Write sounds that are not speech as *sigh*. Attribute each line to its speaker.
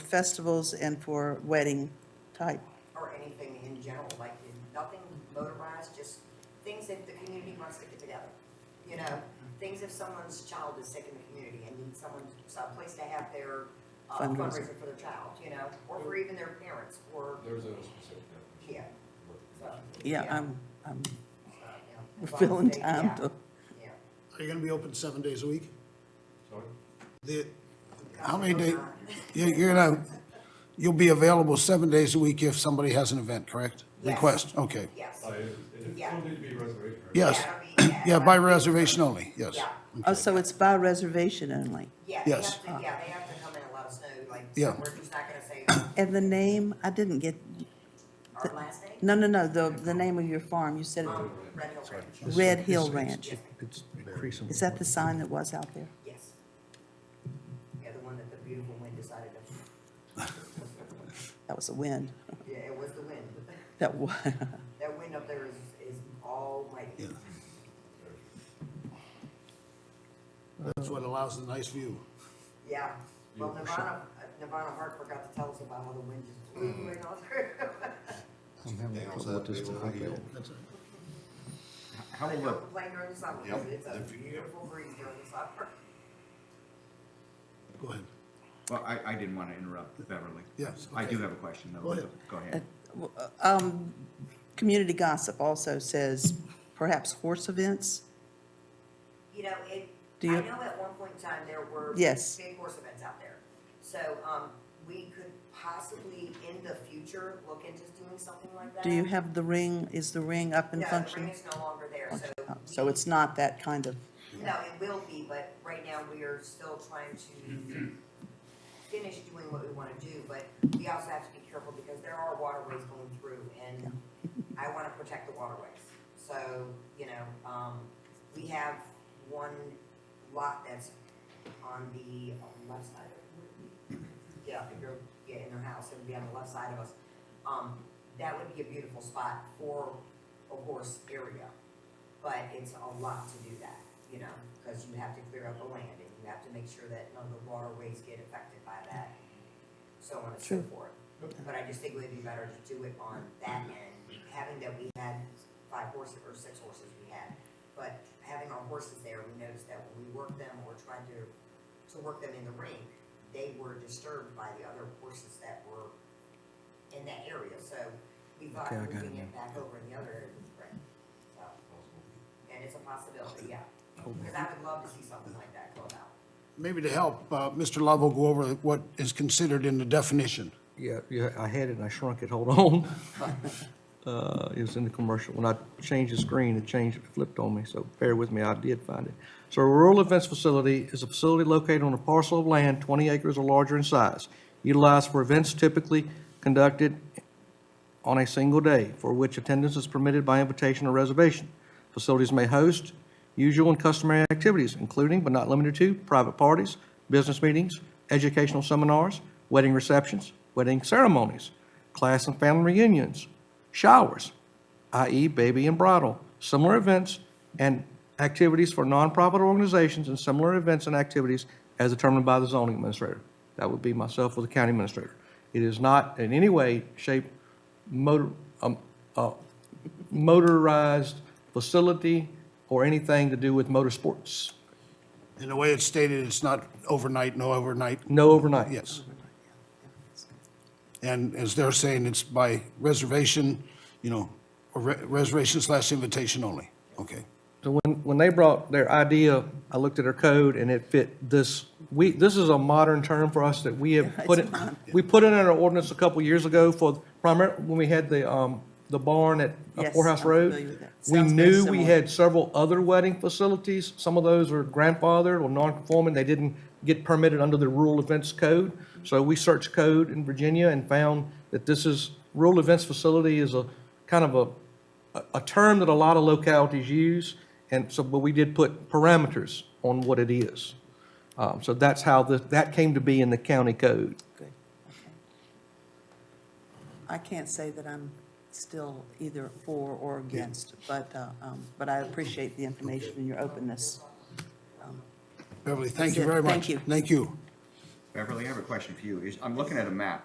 Speaker 1: festivals and for wedding type.
Speaker 2: or anything in general, like nothing motorized, just things that the community wants to get together. You know, things if someone's child is sick in the community and needs someone, some place to have their uh,
Speaker 1: Fundraiser.
Speaker 2: fundraiser for their child, you know, or for even their parents, or,
Speaker 3: There's a specific definition.
Speaker 2: yeah. So,
Speaker 1: Yeah, I'm, I'm
Speaker 2: so, yeah.
Speaker 1: we're
Speaker 2: As long
Speaker 1: feeling
Speaker 2: as they-
Speaker 1: time
Speaker 2: yeah,
Speaker 1: to,
Speaker 2: yeah.
Speaker 4: Are you gonna be open seven days a week?
Speaker 3: Sorry?
Speaker 4: The, how many days,
Speaker 2: *laughs*
Speaker 4: you're gonna, you'll be available seven days a week if somebody has an event, correct?
Speaker 2: Yes.
Speaker 4: Request, okay.
Speaker 2: Yes.
Speaker 3: Uh, it- it-
Speaker 2: Yeah.
Speaker 3: It'll need to be reservation. right?
Speaker 4: Yes,
Speaker 2: Yeah, I mean,
Speaker 4: *clears throat* yeah, by reservation only, yes.
Speaker 2: Yeah.
Speaker 1: oh, so it's by reservation only.
Speaker 2: Yeah, they
Speaker 4: Yes.
Speaker 2: have to, yeah, they have to come in and let us know, like,
Speaker 4: Yeah.
Speaker 2: so we're just not gonna
Speaker 1: *coughs*
Speaker 2: say uh,
Speaker 1: And the name, I didn't get,
Speaker 2: our last name,
Speaker 1: no, no, no, the, the name of your farm, you said
Speaker 2: um, Red Hill Ranch,
Speaker 1: Red Hill Ranch.
Speaker 5: It's increasing.
Speaker 1: Is that the sign that was out there?
Speaker 2: yes. Yeah, the one that the beautiful wind decided to
Speaker 1: That was the wind.
Speaker 2: Yeah, it was the wind.
Speaker 1: That was,
Speaker 2: That wind up there is, is almighty.
Speaker 4: That's what allows the nice view.
Speaker 2: Yeah. Well, Nirvana, uh, Nirvana Hart forgot to tell us about how the wind just blew right on through. *laughs*
Speaker 5: They also have to be able-
Speaker 6: How
Speaker 2: But don't
Speaker 6: will the,
Speaker 2: complain during the summer, because it's a beautiful breeze during the summer.
Speaker 4: Go ahead.
Speaker 6: well, I, I didn't want to interrupt Beverly.
Speaker 4: Yes,
Speaker 6: I
Speaker 4: okay.
Speaker 6: do have a question, though.
Speaker 4: Go ahead.
Speaker 6: Go ahead.
Speaker 1: *laughs* um, community gossip also says perhaps horse events.
Speaker 2: You know, it,
Speaker 1: Do
Speaker 2: I
Speaker 1: you-
Speaker 2: know at one point in time there were
Speaker 1: Yes.
Speaker 2: big horse events out there. So, um, we could possibly in the future look into doing something like that.
Speaker 1: Do you have the ring, is the ring up and
Speaker 2: No, the ring
Speaker 1: functioning?
Speaker 2: is no longer there, so.
Speaker 1: So
Speaker 2: we-
Speaker 1: it's not that kind of,
Speaker 2: No, it will be, but right now we are still trying to finish doing what we wanna do, but we also have to be careful because there are waterways going through and I wanna protect the waterways. So, you know, um, we have one lot that's on the left side of, yeah, if you're, yeah, in their house, it would be on the left side of us. Um, that would be a beautiful spot for a horse area but it's a lot to do that, you know, because you have to clear up the land and you have to make sure that none of the waterways get affected by that, so on and
Speaker 1: True.
Speaker 2: so forth. But I just think it would be better to do it on that end, having that we had five horses or six horses we had, but having our horses there, we noticed that when we worked them or tried to, to work them in the ring, they were disturbed by the other horses that were in that area, so we thought
Speaker 5: Okay, I got it
Speaker 2: moving it
Speaker 5: now.
Speaker 2: back over in the other area was great, so. And it's a possibility, yeah. Because I would love to see something like that go out.
Speaker 4: Maybe to help, uh, Mr. Love will go over what is considered in the definition.
Speaker 5: Yeah, yeah, I had it and I shrunk it, hold on. *laughs* Uh, It was in the commercial, when I changed the screen, it changed, it flipped on me, so bear with me, I did find it. So a rural events facility is a facility located on a parcel of land 20 acres or larger in size, utilized for events typically conducted on a single day, for which attendance is permitted by invitation or reservation. Facilities may host usual and customary activities, including but not limited to private parties, business meetings, educational seminars, wedding receptions, wedding ceremonies, class and family reunions, showers, i.e. E, baby and bridal, similar events and activities for nonprofit organizations and similar events and activities as determined by the zoning administrator. That would be myself or the county administrator. It is not in any way, shape, motor, um, uh, motorized facility or anything to do with motorsports.
Speaker 4: In the way it's stated, it's not overnight, no overnight,
Speaker 5: No overnight.
Speaker 4: yes. And as they're saying, it's by reservation, you know, or re- reservation slash invitation only. Okay.
Speaker 5: So when, when they brought their idea, I looked at their code and it fit this, we, this is a modern term for us that we have put it, we put it in our ordinance a couple years ago for primary, when we had the, um, the barn at uh,
Speaker 1: Yes,
Speaker 5: Poorhouse
Speaker 1: I'm
Speaker 5: Road.
Speaker 1: familiar with that.
Speaker 5: We
Speaker 1: Sounds very
Speaker 5: knew we
Speaker 1: similar.
Speaker 5: had several other wedding facilities. Some of those were grandfathered or non-conforming. They didn't get permitted under the rural events code. So we searched code in Virginia and found that this is, rural events facility is a kind of a a- a term that a lot of localities use, and so, but we did put parameters on what it is. Um, So that's how the, that came to be in the county code.
Speaker 1: good, okay. I can't say that I'm still either for or against, but, uh, um, but I appreciate the information and your openness.
Speaker 4: Beverly, thank
Speaker 1: That's
Speaker 4: you
Speaker 1: it.
Speaker 4: very much.
Speaker 1: Thank you.
Speaker 4: Thank you.
Speaker 6: Beverly, I have a question for you. Is- I'm looking at a map.